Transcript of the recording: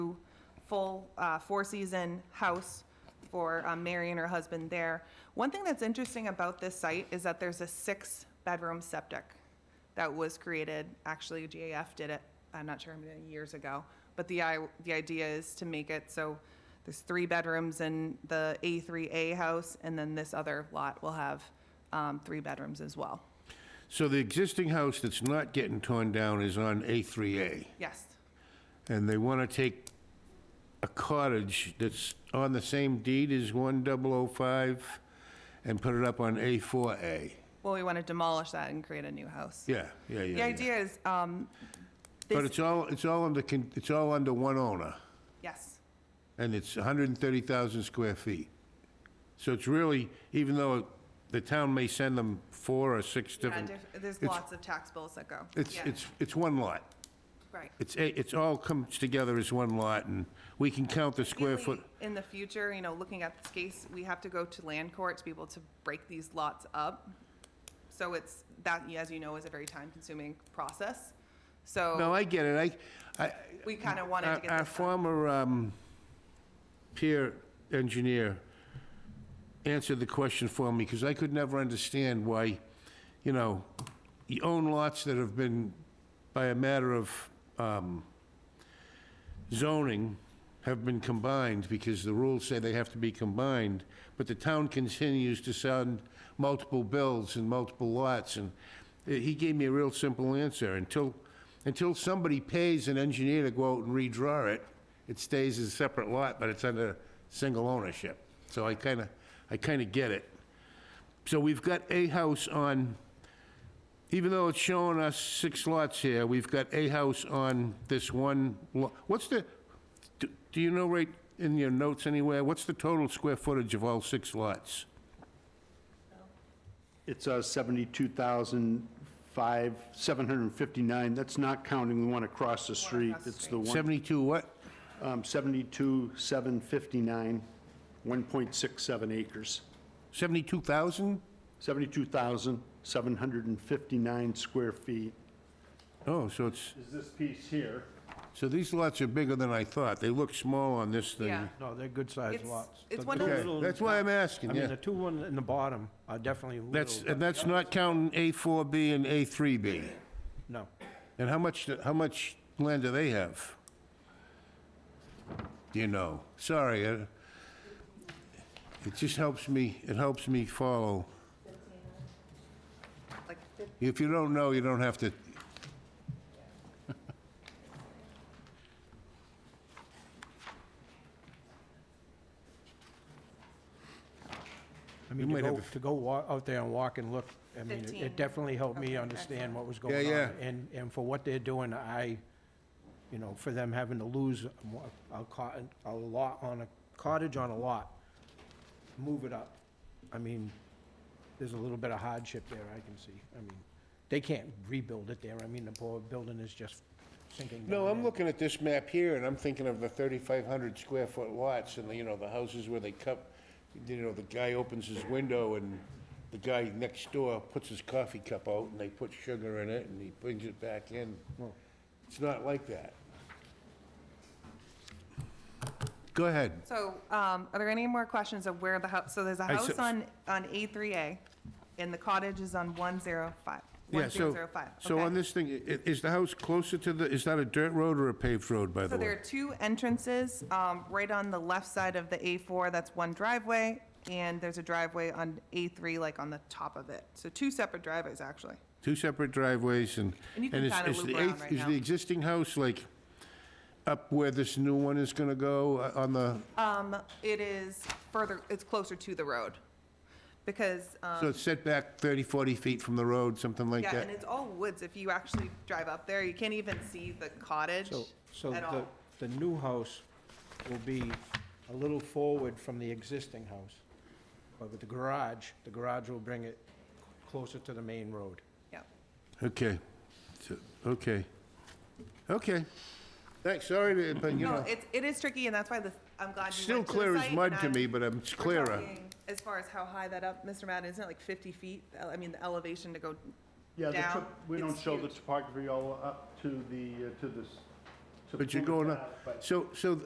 full uh, four-season house for um, Mary and her husband there. One thing that's interesting about this site is that there's a six-bedroom septic that was created, actually GAF did it, I'm not sure how many years ago, but the, i- the idea is to make it so there's three bedrooms in the A3A house, and then this other lot will have um, three bedrooms as well. So the existing house that's not getting torn down is on A3A, Yes, and they want to take a cottage that's on the same deed as 1005 and put it up on A4A. well, we want to demolish that and create a new house. Yeah, yeah, yeah. The yeah. idea is, um, But this- it's all, it's all under, con- it's all under one owner, yes, and it's 130,000 square feet. So it's really, even though the town may send them four or six yeah, different, diff- there's it's- lots of tax bills that go. it's, Yeah, it's, it's one lot. Right. It's, a- it's all comes together as one lot, and we can count the square Ideally, foot. In the future, you know, looking at this case, we have to go to land court to be able to break these lots up. So it's, that, as you know, is a very time-consuming process. No, So I get it, I, I. we kind of wanted our- to get Our this done. former um, peer engineer answered the question for me, because I could never understand why, you know, you own lots that have been, by a matter of um, zoning, have been combined, because the rules say they have to be combined, but the town continues to send multiple bills and multiple lots, and he gave me a real simple answer, until, until somebody pays an engineer to go out and redraw it, it stays as a separate lot, but it's under single ownership. So I kinda, I kinda get it. So we've got a house on, even though it's showing us six lots here, we've got a house on this one lot. What's the, do do you know right in your notes anywhere, what's the total square footage of all six lots? It's uh, 72,005, 759, that's not counting the one across the street, across the it's the one, 72 what? um, 72,759, 1.67 acres. 72,000? 72,759 square feet. Oh, so it's, Is this piece here? so these lots are bigger than I thought. They look small on this thing. Yeah. No, they're good-sized It's- lots. it's The one two of those- Okay, little- that's why I'm I asking, mean, yeah. the two ones in the bottom are definitely That's, uh, little, and that's not counting A4B and A3B. no. And how much, how much land do they have? Do You know, sorry, I- it just helps me, it helps me follow. like, If you don't know, you don't have to, I You mean, to might go, have- to go wa- out there and walk and look, I mean, it- 15. it definitely helped Okay, me understand excellent. what was going on. yeah. And, and for what they're doing, I, you know, for them having to lose a mo- a cot, a lot on a cottage on a lot, move it up. I mean, there's a little bit of hardship there, I can see. I mean, they can't rebuild it there. I mean, the poor building is just sinking down. no, I'm in. looking at this map here, and I'm thinking of the 3,500 square foot lots, and the, you know, the houses where they cup, you know, the guy opens his window, and the guy next door puts his coffee cup out, and they put sugar in it, and he brings it back in. It's not like that. Go ahead. So, um, are there any more questions of where the house, so there's a I house s- on, on A3A, and the cottage is on 105, Yeah, so, 1005. so on okay. this thing, i- i- is the house closer to the, is that a dirt road or a paved road, by So the there are way? two entrances, um, right on the left side of the A4, that's one driveway, and there's a driveway on A3, like on the top of it. So two separate driveways, actually. Two separate driveways and. And you can is- kinda is the loop around eighth- right Is now. the existing house like up where this new one is gonna go uh, on the, Um, it is further, it's closer to the road, because, um, so it's set back 30, 40 feet from the road, something like yeah, and that? it's all woods. If you actually drive up there, you can't even see the cottage So, so at all. the, the new house will be a little forward from the existing house, but with the garage, the garage will bring it closer to the main road. Yep. Okay, So- okay, okay. Thanks, sorry, to- but you No, know, it's, it is tricky, and that's why this, I'm glad you still went to the clear as site, mud and to I'm- me, but I'm- it's we're clearer. talking As far as how high that up, Mr. Madden, isn't it like 50 feet? Uh, I mean, the elevation to go Yeah, the down. top- we don't it's show the huge. topography all up to the, uh, to this. to but you're Plymouth going Ave, up. but- So, so